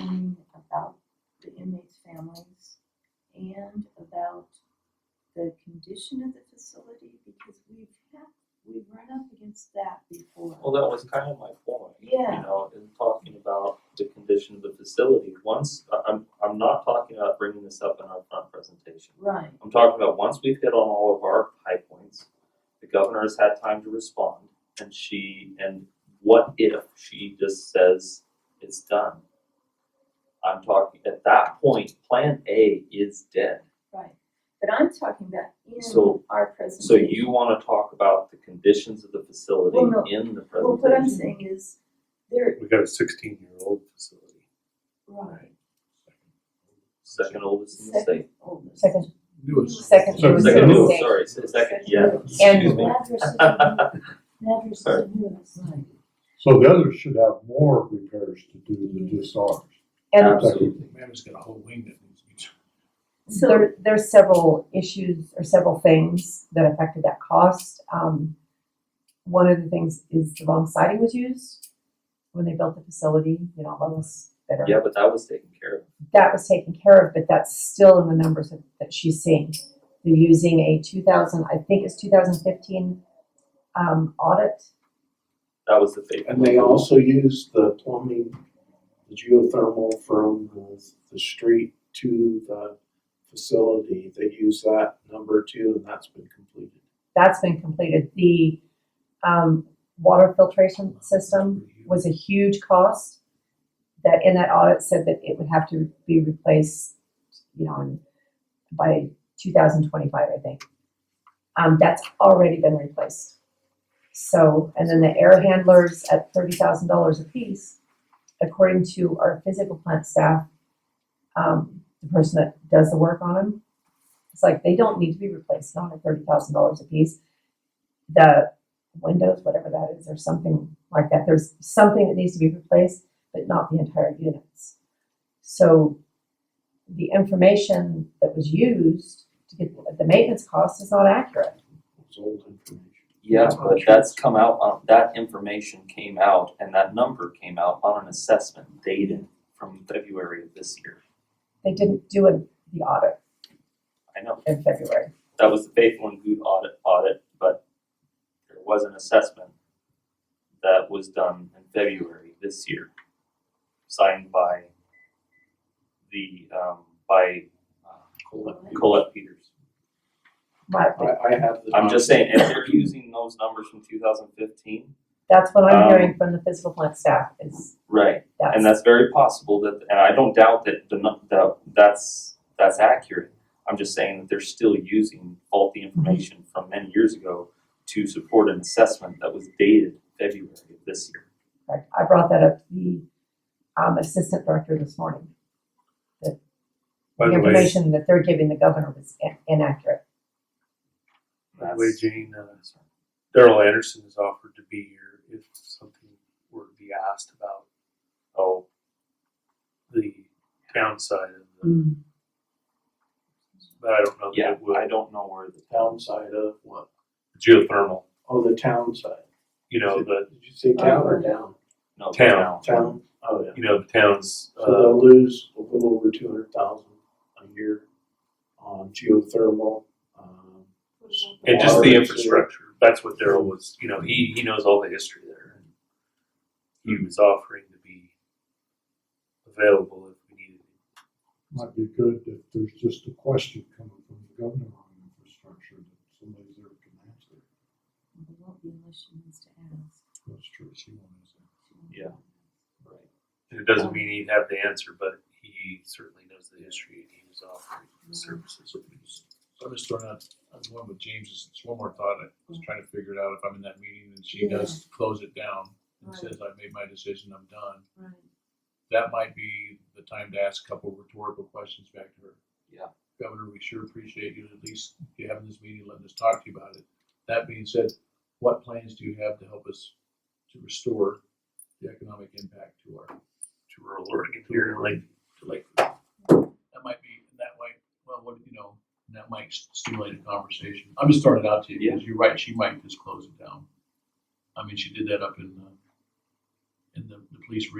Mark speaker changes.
Speaker 1: meeting about the inmates' families and about the condition of the facility, because we've had, we've run up against that before.
Speaker 2: Well, that was kind of my point.
Speaker 1: Yeah.
Speaker 2: You know, in talking about the condition of the facility, once, I- I'm, I'm not talking about bringing this up in our front presentation.
Speaker 1: Right,
Speaker 2: I'm talking about once we've hit on all of our high points, the governor has had time to respond and she, and what if she just says it's done? I'm talking, at that point, plan A is dead.
Speaker 1: right, but I'm talking about in
Speaker 2: So-
Speaker 1: our
Speaker 2: So
Speaker 1: presentation.
Speaker 2: you wanna talk about the conditions of the facility
Speaker 1: Well, no.
Speaker 2: in the presentation?
Speaker 1: Well, what I'm saying is, there,
Speaker 3: We got a sixteen year old facility.
Speaker 1: right,
Speaker 2: Second oldest in the state.
Speaker 1: second oldest.
Speaker 4: Second.
Speaker 3: Newest.
Speaker 4: Second
Speaker 3: Sorry,
Speaker 4: was
Speaker 3: second
Speaker 4: in the
Speaker 2: oh,
Speaker 3: newest.
Speaker 4: state.
Speaker 2: sorry, s- second, yeah.
Speaker 4: And-
Speaker 3: Excuse me.
Speaker 1: Madras is the Madras is the newest.
Speaker 5: So the others should have more repairs to do than just ours.
Speaker 4: And
Speaker 2: Absolutely.
Speaker 3: Mama's got a whole wing that needs to be. turned.
Speaker 1: So-
Speaker 4: there, there's several issues or several things that affected that cost. Um, one of the things is the wrong siding was used when they built the facility, you know, all those that are
Speaker 2: Yeah, but that was taken care of.
Speaker 4: that was taken care of, but that's still in the numbers that, that she's seeing. They're using a two thousand, I think it's two thousand fifteen, um, audit.
Speaker 2: That was the fake.
Speaker 6: And they also use the plumbing, the geothermal from the, the street to the facility. They use that number too, and that's been completed.
Speaker 4: That's been completed. The, um, water filtration system was a huge cost. That in that audit said that it would have to be replaced, you know, in- by two thousand twenty-five, I think. Um, that's already been replaced. So, and then the air handlers at thirty thousand dollars apiece, according to our physical plant staff, um, the person that does the work on them, it's like they don't need to be replaced, not at thirty thousand dollars apiece. The windows, whatever that is, or something like that. There's something that needs to be replaced, but not the entire units. So the information that was used to get the maintenance cost is not accurate.
Speaker 6: It's old information.
Speaker 2: Yeah, but that's come out, on that information came out and that number came out on an assessment dated from February of this year.
Speaker 4: They didn't do a, the audit
Speaker 2: I know,
Speaker 4: in February.
Speaker 2: that was the faithful and good audit, audit, but there was an assessment that was done in February this year, signed by the, um, by uh, Colette Peters.
Speaker 4: Right, but
Speaker 6: I, I have the.
Speaker 2: I'm just saying, if they're using those numbers from two thousand fifteen.
Speaker 4: that's what I'm
Speaker 2: Um,
Speaker 4: hearing from the physical plant staff is
Speaker 2: Right.
Speaker 4: that's,
Speaker 2: And that's very possible that, and I don't doubt that the, nu- that, that's, that's accurate. I'm just saying that they're still using faulty information from many years ago to support an assessment that was dated February of this year.
Speaker 4: correct. I brought that up to the um, assistant director this morning.
Speaker 3: By the way,
Speaker 4: information that they're giving the governor was in- inaccurate.
Speaker 3: by the way,
Speaker 2: That's-
Speaker 3: Jane, uh, Daryl Anderson has offered to be here if something were to be asked about
Speaker 2: Oh,
Speaker 3: the downside of the, but I don't know that
Speaker 2: yeah,
Speaker 3: it would.
Speaker 2: I don't know where the
Speaker 6: Town side of what?
Speaker 3: Geothermal,
Speaker 6: Oh, the town side.
Speaker 3: you know, the,
Speaker 6: Did you say town or down?
Speaker 2: no, the
Speaker 3: Town.
Speaker 2: town.
Speaker 6: Oh, Town, oh yeah.
Speaker 3: you know, the towns,
Speaker 6: So
Speaker 3: uh,
Speaker 6: they'll lose a little over two hundred thousand a year on geothermal, um,
Speaker 3: and just the
Speaker 6: Water.
Speaker 3: infrastructure. That's what Daryl was, you know, he, he knows all the history there. He
Speaker 2: Hmm.
Speaker 3: was offering to be available if we needed.
Speaker 5: Might be good if there's just a question coming from the governor on infrastructure that somebody there can answer.
Speaker 1: It won't be unless she wants to ask.
Speaker 5: That's true, she wants to.
Speaker 1: She wants
Speaker 2: Yeah.
Speaker 1: to
Speaker 2: Right.
Speaker 3: It doesn't mean he'd have the answer, but he certainly knows the history and he was offering
Speaker 1: Mm-hmm.
Speaker 3: services.
Speaker 7: I'm just throwing out, I'm going with James's, just one more thought, I was trying to figure it out if I'm in that meeting and she
Speaker 1: Mm-hmm. Yeah.
Speaker 7: does close it down and
Speaker 1: Right.
Speaker 7: says, I've made my decision, I'm done.
Speaker 1: Right.
Speaker 7: That might be the time to ask a couple rhetorical questions back to her.
Speaker 2: Yeah.
Speaker 7: Governor, we sure appreciate you, at least you having this meeting, letting us talk to you about it. That being said, what plans do you have to help us to restore the economic impact to our,
Speaker 3: to rural Oregon here in Lake,
Speaker 7: to Lakewood? That might be, that might, well, what, you know, that might stimulate a conversation. I'm just throwing it out to you, because you're right, she might just close it down. I mean, she did that up in, uh,